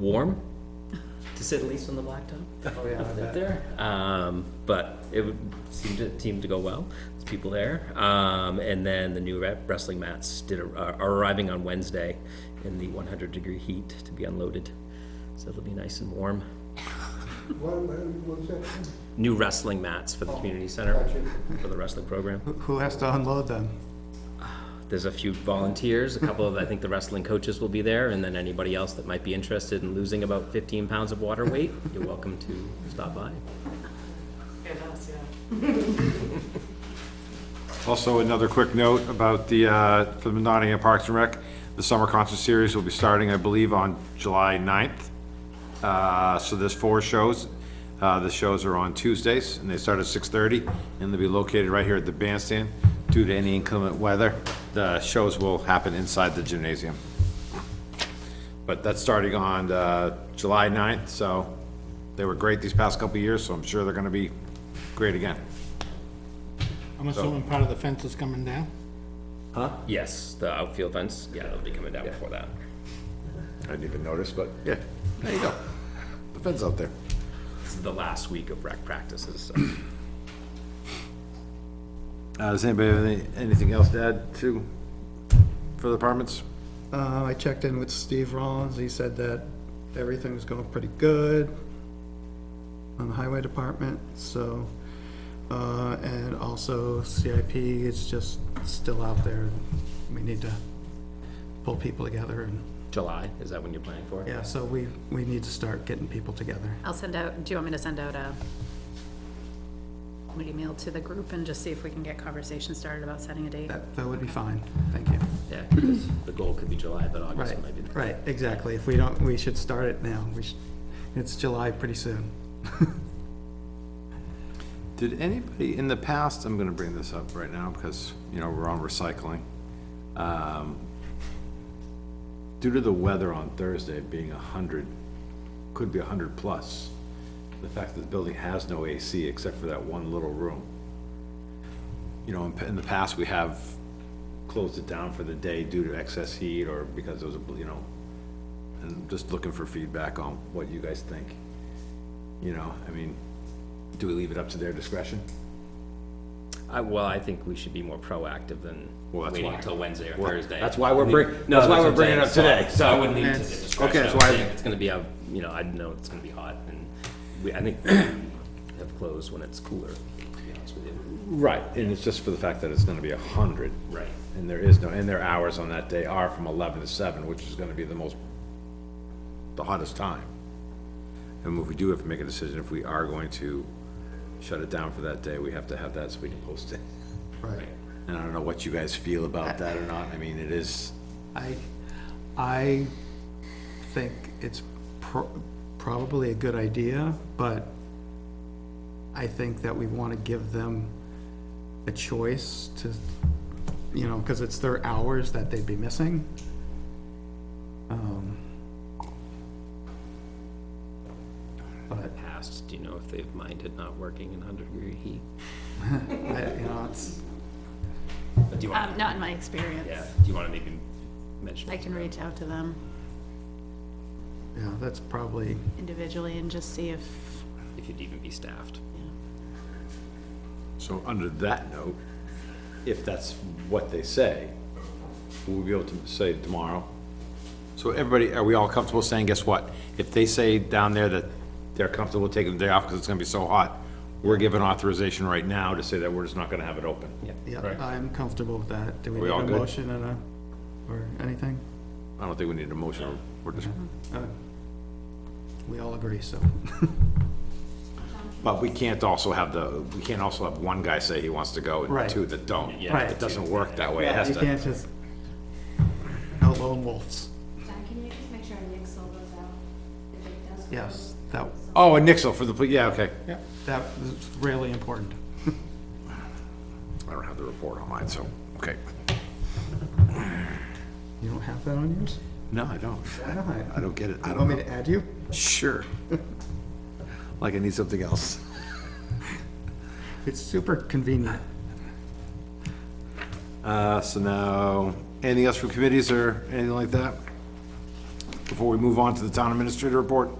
warm, to say the least, on the blacktop. Oh, yeah, I out bet. there. Um, but it would seem to seem to go well. There's people there, um, and then the new re- wrestling mats did ar- are arriving on Wednesday in the 100 degree heat to be unloaded. So it'll be nice and warm. What, what what was that? New wrestling mats for the community center Gotcha. for the wrestling program. Who- Who has to unload them? There's a few volunteers, a couple of I think the wrestling coaches will be there, and then anybody else that might be interested in losing about 15 pounds of water weight, you're welcome to stop by. Also, another quick note about the, uh, for the Nottingham Parks and Rec, the summer concert series will be starting, I believe, on July 9th. Uh, So there's four shows. Uh, The shows are on Tuesdays, and they start at 6:30, and they'll be located right here at the bandstand. Due to any inclement weather, the shows will happen inside the gymnasium. But that's starting on uh, July 9th, so they were great these past couple of years, so I'm sure they're going to be great again. I'm assuming part of the fence is coming down? Yes, the outfield fence, yeah, they'll be coming down before that. I didn't even notice, but yeah, there you go. The fence out there. This is the last week of rec practices. so. Uh, does anybody have any, anything else to add to, for the apartments? Uh, I checked in with Steve Rollins, he said that everything was going pretty good on the highway department, so, uh, and also CIP is just still out there. We need to pull people together and, July, is that when you're planning for? it? yeah, so we, we need to start getting people together. I'll send out, do you want me to send out a, an email to the group and just see if we can get conversation started about setting a date? That, that would be fine, thank you. Yeah, 'cause the goal could be July, but August Right, might be. the- right, exactly. If we don't, we should start it now. We should, it's July pretty soon. Did anybody, in the past, I'm gonna bring this up right now because, you know, we're on recycling. Um, Due to the weather on Thursday being a hundred, could be a hundred plus, the fact that the building has no AC except for that one little room. You know, in, p- in the past, we have closed it down for the day due to excess heat or because it was, a bl- you know, and just looking for feedback on what you guys think. You know, I mean, do we leave it up to their discretion? I, well, I think we should be more proactive than Well, that's waiting why. until Wednesday or Well, Thursday. that's why we're I bring- mean- that's No, why what we're I'm bringing it saying, up today, So I so- wouldn't leave it to the That's- discretion. okay, that's I would why- think It's gonna be, a you know, I know it's gonna be hot and we, I think we have closed when it's cooler, to be honest with you. Right, and it's just for the fact that it's gonna be a hundred. Right. And there is no, and their hours on that day are from eleven to seven, which is gonna be the most, the hottest time. And if we do have to make a decision, if we are going to shut it down for that day, we have to have that so we can post it. Right. And I don't know what you guys feel about that or not, I mean, it is, I, I think it's pro- probably a good idea, but I think that we want to give them a choice to, you know, because it's their hours that they'd be missing. Um, But, Past, do you know if they've minded not working in hundred degree heat? I, you know, it's, But do you Um, want, not in my yeah, experience. do you wanna maybe mention? I can reach out to them yeah, that's probably, individually and just see if, If you'd even be staffed. so under that note, if that's what they say, we'll be able to say tomorrow, So everybody, are we all comfortable saying, guess what? If they say down there that they're comfortable taking the day off because it's gonna be so hot, we're given authorization right now to say that we're just not gonna have it open. Yeah. yeah, I'm comfortable with that. Do we Are we need all a good? motion and a, or anything? I don't think we need a motion, we're just, We all agree, so. but we can't also have the, we can't also have one guy say he wants to go and Right. two that don't. Yeah. Right. It doesn't work that way, it has You to, can't just, no lone wolves. John, can you just make sure Nick sold those out? If it does. Yes, that, oh, a nixle for the, pl- yeah, okay. that is really important. I don't have the report on mine, so, okay. You don't have that on yours? No, I don't, Why not? I don't get it, I You don't want me know. to add you? Sure. Like I need something else. It's super convenient. Uh, so now, anything else from committees or anything like that? before we move on to the town administrator report?